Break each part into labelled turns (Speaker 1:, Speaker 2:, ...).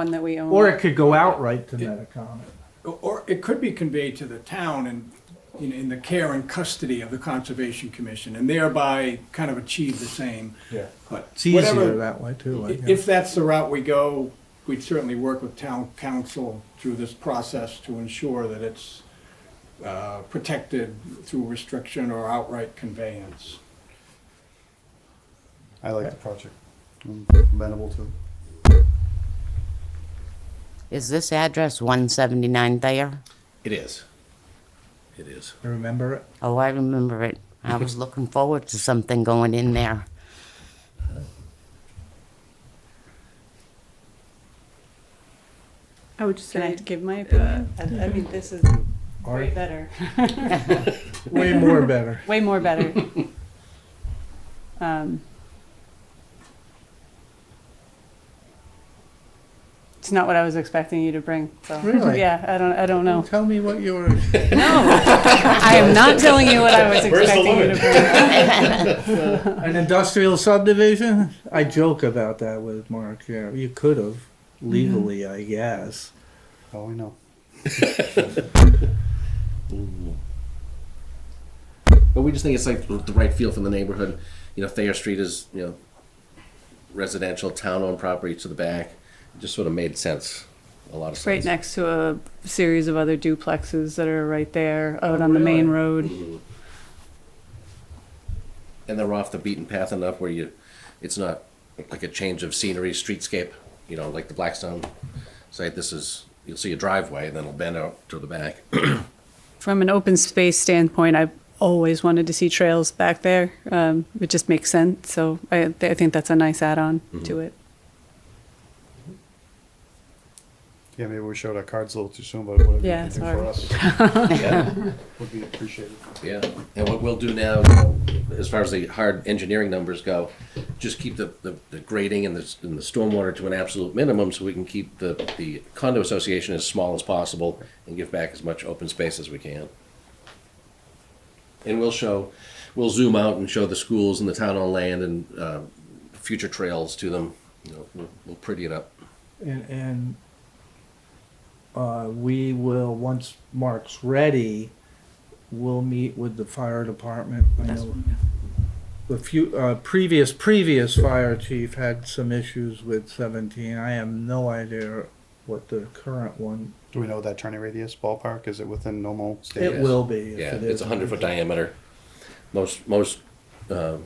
Speaker 1: one that we own.
Speaker 2: Or it could go outright to Metacomet.
Speaker 3: Or it could be conveyed to the town and, you know, in the care and custody of the Conservation Commission, and thereby kind of achieve the same.
Speaker 2: Yeah.
Speaker 3: But
Speaker 2: It's easier
Speaker 3: whatever-
Speaker 2: that way too. I
Speaker 3: i-
Speaker 2: guess.
Speaker 3: If that's the route we go, we'd certainly work with town council through this process to ensure that it's uh, protected through restriction or outright conveyance.
Speaker 4: I like the project. I'm amenable to it.
Speaker 5: Is this address 179 there?
Speaker 6: It is. It is.
Speaker 2: I Remember it?
Speaker 5: Oh, I remember it. I was looking forward to something going in there.
Speaker 1: I would just
Speaker 7: Can I-
Speaker 1: like to give my
Speaker 7: Uh,
Speaker 1: opinion.
Speaker 7: I, I mean, this is
Speaker 2: Or
Speaker 7: way better.
Speaker 2: way more better.
Speaker 1: Way more better. um, it's not what I was expecting you to bring. So.
Speaker 2: Really?
Speaker 1: Yeah, I don't. I don't know.
Speaker 2: Tell me what you were.
Speaker 1: I am not telling you what I was
Speaker 6: Where's the
Speaker 1: expecting you to
Speaker 6: limit?
Speaker 1: bring.
Speaker 2: An industrial subdivision? I joke about that with Mark. Yeah, you could have legally, I guess.
Speaker 4: Oh, I know.
Speaker 6: But we just think it's like the the right feel for the neighborhood. You know, Thayer Street is, you know, residential, town-owned property to the back. It just sort of made sense, a lot of sense.
Speaker 1: Right next to a series of other duplexes that are right there out on the main road.
Speaker 6: And they're off the beaten path enough where you, it's not like a change of scenery, streetscape, you know, like the Blackstone site. This is, you'll see a driveway and then it'll bend out to the back.
Speaker 1: From an open space standpoint, I've always wanted to see trails back there. Um, it just makes sense. So I, I think that's a nice add-on
Speaker 6: Mm-hmm.
Speaker 1: to it.
Speaker 4: Yeah, maybe we showed our cards a little too soon, but whatever you
Speaker 1: Yeah,
Speaker 4: can do for
Speaker 1: sorry.
Speaker 4: us
Speaker 6: Yeah.
Speaker 4: would be appreciated.
Speaker 6: Yeah, and what we'll do now, you know, as far as the hard engineering numbers go, just keep the, the, the grading and the, and the stormwater to an absolute minimum so we can keep the, the condo association as small as possible and give back as much open space as we can. And we'll show, we'll zoom out and show the schools and the town on land and, uh, future trails to them. You know, we'll, we'll pretty it up.
Speaker 2: And, and uh, we will, once Mark's ready, we'll meet with the fire department. I know The few, uh, previous, previous fire chief had some issues with seventeen. I have no idea what the current one,
Speaker 4: Do we know what that turning radius ballpark? Is it within normal state?
Speaker 2: it
Speaker 6: Yes.
Speaker 2: will be. if it
Speaker 6: Yeah, it's a
Speaker 2: isn't.
Speaker 6: hundred foot diameter. Most, most, uh,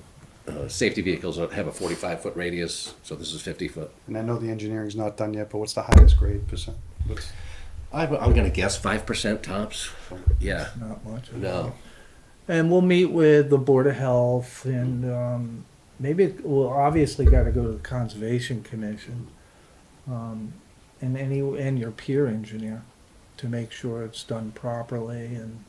Speaker 6: uh, safety vehicles have a forty-five foot radius, so this is fifty foot.
Speaker 4: And I know the engineering's not done yet, but what's the highest grade percent? What's,
Speaker 6: I, I'm going to guess 5% tops. Yeah.
Speaker 2: Not much. of it.
Speaker 6: No.
Speaker 2: And we'll meet with the Board of Health and, um, maybe, it- we'll obviously gotta go to the Conservation Commission. Um, and any, and your peer engineer to make sure it's done properly and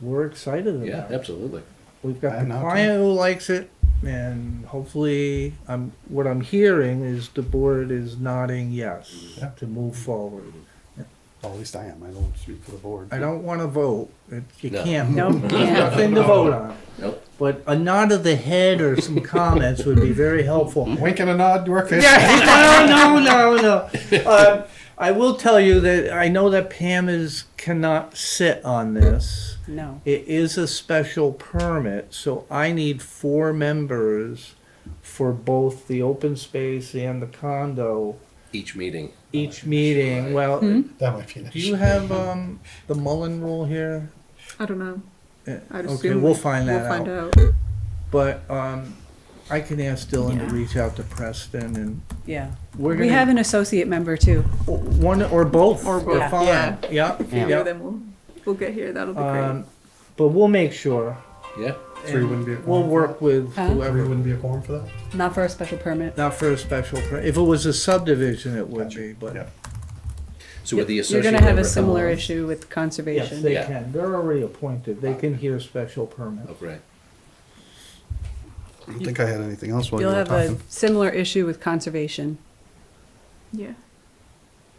Speaker 2: we're excited about it.
Speaker 6: Yeah, absolutely.
Speaker 2: We've got the
Speaker 4: I'm not
Speaker 2: client who likes it and hopefully, I'm, what I'm hearing is the board is nodding yes
Speaker 4: Yeah.
Speaker 2: to move forward.
Speaker 4: well, at least I am. I don't speak for the board.
Speaker 2: I don't wanna vote. It, you
Speaker 6: No.
Speaker 2: can't.
Speaker 1: Nope,
Speaker 2: vote.
Speaker 1: can't.
Speaker 2: There's nothing to vote on.
Speaker 6: Nope.
Speaker 2: But a nod of the head or some comments would be very helpful.
Speaker 4: Wink and a nod, work face.
Speaker 2: Yeah, no, no, no, no. Um, I will tell you that I know that Pam is cannot sit on this.
Speaker 1: No.
Speaker 2: It is a special permit, so I need four members for both the open space and the condo
Speaker 6: Each meeting.
Speaker 2: each meeting. Well, do
Speaker 4: That might be an
Speaker 2: you
Speaker 4: issue.
Speaker 2: have um, the Mullen rule here?
Speaker 8: I don't know.
Speaker 2: Uh,
Speaker 8: I'd
Speaker 2: Okay,
Speaker 8: assume
Speaker 2: we'll find
Speaker 8: We'll
Speaker 2: that out.
Speaker 8: find out.
Speaker 2: But um, I can ask Dylan
Speaker 1: Yeah.
Speaker 2: to reach out to Preston, and
Speaker 1: Yeah.
Speaker 2: we're gonna
Speaker 1: We have an associate member too.
Speaker 2: one or both.
Speaker 8: Or
Speaker 2: They're
Speaker 8: both,
Speaker 2: fine.
Speaker 8: yeah.
Speaker 2: Yeah.
Speaker 5: Yeah.
Speaker 8: Yeah, then we'll, we'll get here. That'll be
Speaker 2: Um, but we'll make sure.
Speaker 6: Yeah.
Speaker 4: Three wouldn't be a
Speaker 2: We'll
Speaker 4: quorum.
Speaker 2: work with
Speaker 1: Huh?
Speaker 4: Three
Speaker 2: whoever.
Speaker 4: wouldn't be a quorum for that?
Speaker 1: Not for a special permit.
Speaker 2: Not for a special. Per- if it was a subdivision, it would be. But
Speaker 4: Yeah.
Speaker 6: So with the
Speaker 1: You're
Speaker 6: associate
Speaker 1: going to have
Speaker 6: member
Speaker 1: a
Speaker 6: come
Speaker 1: similar
Speaker 6: along.
Speaker 1: issue with
Speaker 2: yes,
Speaker 1: conservation.
Speaker 2: they
Speaker 6: Yeah.
Speaker 2: can. They're already appointed. They can hear special permit.
Speaker 6: Oh, great.
Speaker 4: I don't think I had anything else while you
Speaker 1: You'll
Speaker 4: were
Speaker 1: have a
Speaker 4: talking.
Speaker 1: similar issue with conservation.
Speaker 8: great. Yeah.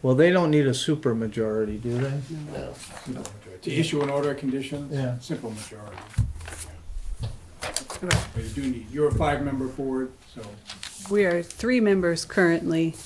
Speaker 2: Well, they don't need a super majority, do they?
Speaker 6: No.
Speaker 3: To issue an order of conditions?
Speaker 2: Yeah.
Speaker 3: Simple majority. But you do need, you're a five-member board, so.
Speaker 1: We are three members currently.